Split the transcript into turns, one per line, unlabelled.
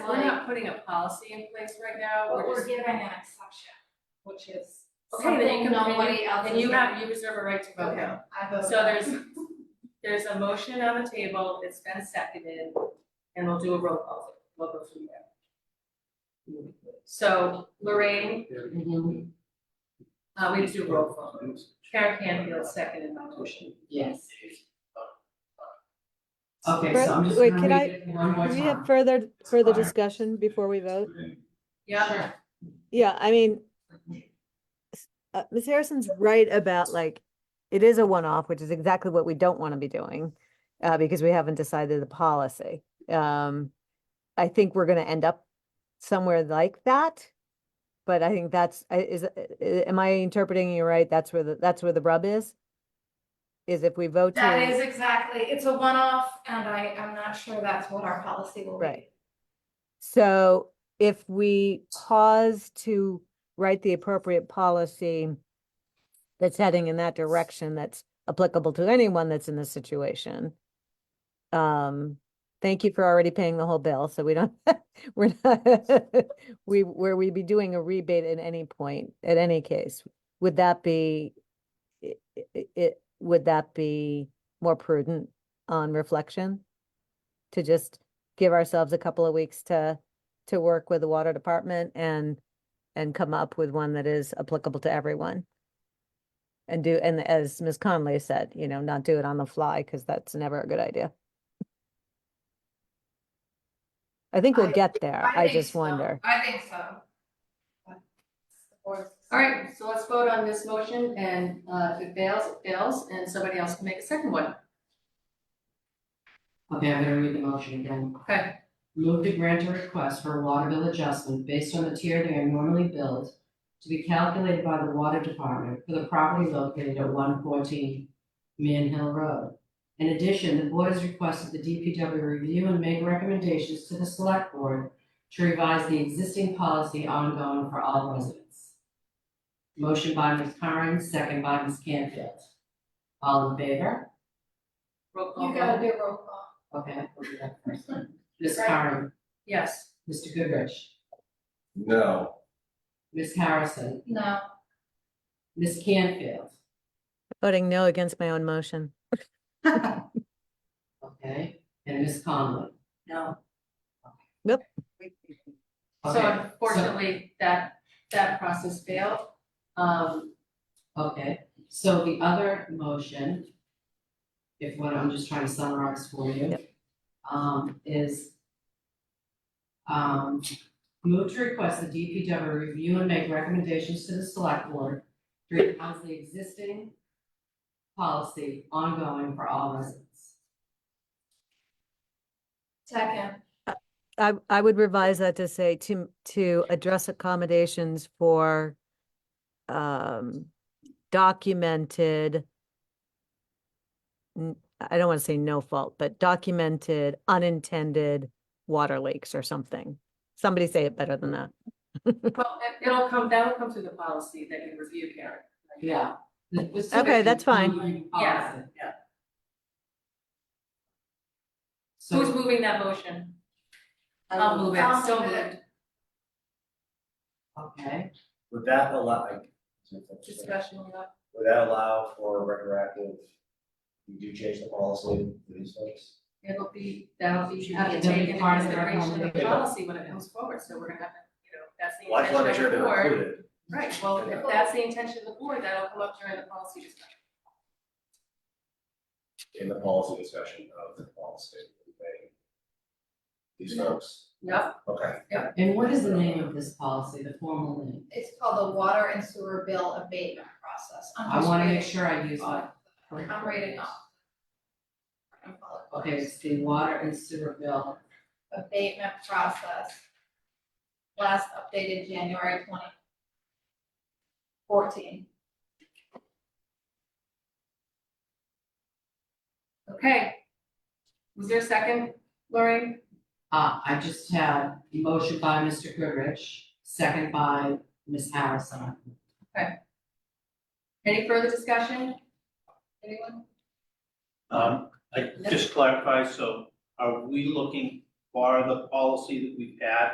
not putting a policy in place right now,
But
we're
we're
just,
giving an exception, which is
Okay, then you
something
can-
nobody else
and
is
you
doing.
have, you reserve a right to vote no.
I vote.
So there's, there's a motion on the table, it's been seconded, and we'll do a roll call, vote. we'll go from there. So Lorraine, uh, we just do a roll call, vote. Karen Canfield seconded my motion.
Yes.
Okay,
Brett,
so I'm just
wait,
gonna
can
read it one more
Do we have
time.
further, further
fire.
discussion before we vote?
Yeah,
Yeah, I mean, s- uh, Ms. Harrison's right about like, it is a one-off, which is exactly what we don't want to be doing, uh, because we haven't decided the policy. Um, I think we're going to end up somewhere like that. But I think that's, I- is, uh, am I interpreting you right? That's where the, that's where the rub is? Is if we vote to.
That is exactly, it's a one-off, and I, I'm not sure that's what our policy will be.
Right. So if we pause to write the appropriate policy that's heading in that direction, that's applicable to anyone that's in this situation. Um, thank you for already paying the whole bill, so we don't, we're not, we, where we be doing a rebate at any point, at any case. Would that be, i- i- i- would that be more prudent on reflection? To just give ourselves a couple of weeks to to work with the water department and and come up with one that is applicable to everyone. And do, and as Ms. Conley said, you know, not do it on the fly because that's never a good idea. I think we'll
I-
get there.
I
I
think
just
so.
wonder.
I think so.
all right, so let's vote on this motion, and, uh, if it fails, it fails, and somebody else can make a second one,
Okay, I'm gonna read the motion again.
okay?
Move to grant a request for a water bill adjustment based on the tier they are normally billed to be calculated by the water department for the property located at one fourteen Man Hill Road. In addition, the board has requested the DPW review and make recommendations to the select board to revise the existing policy ongoing for all residents. Motion by Ms. Curran, second by Ms. Canfield. All in favor?
Roll call
You
vote.
gotta do roll call.
Okay, we'll do that first. Ms. Curran,
Yes.
Mr. Goodrich,
No,
Ms. Harrison,
No,
Ms. Canfield,
Voting no against my own motion.
okay, and Ms. Conley.
No.
Nope.
So
Okay,
unfortunately, that, that process failed. Um,
okay, so the other motion, if what I'm just trying to summarize for you, um, is um, move to request the DPW review and make recommendations to the select board to revise the existing policy ongoing for all residents.
second,
I I would revise that to say to to address accommodations for um documented n- I don't want to say no fault, but documented unintended water leaks or something. Somebody say it better than that.
well, it- it'll come, that will come through the policy that you reviewed, Karen.
Yeah.
Okay, that's fine.
Yeah, yeah. Who's
So,
moving that motion? I'll move
I'll
it, so
move it.
moved.
okay,
would that allow, like,
Discussion up.
would that allow for retroactive, you do change the policy for these folks?
It'll be, that'll be,
Should
have to
be- that'll be
take into
part of the
consideration of the
recommendation.
policy when it comes forward, so we're gonna have to, you know, that's the
Well, I just wanna make
intention of
sure
the
they're
board.
included.
Right, well, if that's the intention of the board, that'll come up during the policy discussion.
In the policy discussion of the policy, okay? These folks,
Yep,
okay.
and what is the name of this policy, the formal name?
it's called the water and sewer bill abatement process. I'm
I
just
wanna make
reading
sure I use
off-
that. correct.
I'm reading off. I'm following.
Okay, it's the water and sewer bill,
abatement process. Last updated January twenty fourteen.
okay. Was there a second, Lori?
uh, I just had a motion by Mr. Goodrich, second by Ms. Harrison.
Any further discussion? Anyone?
Um, I just clarify, so are we looking for the policy that we've had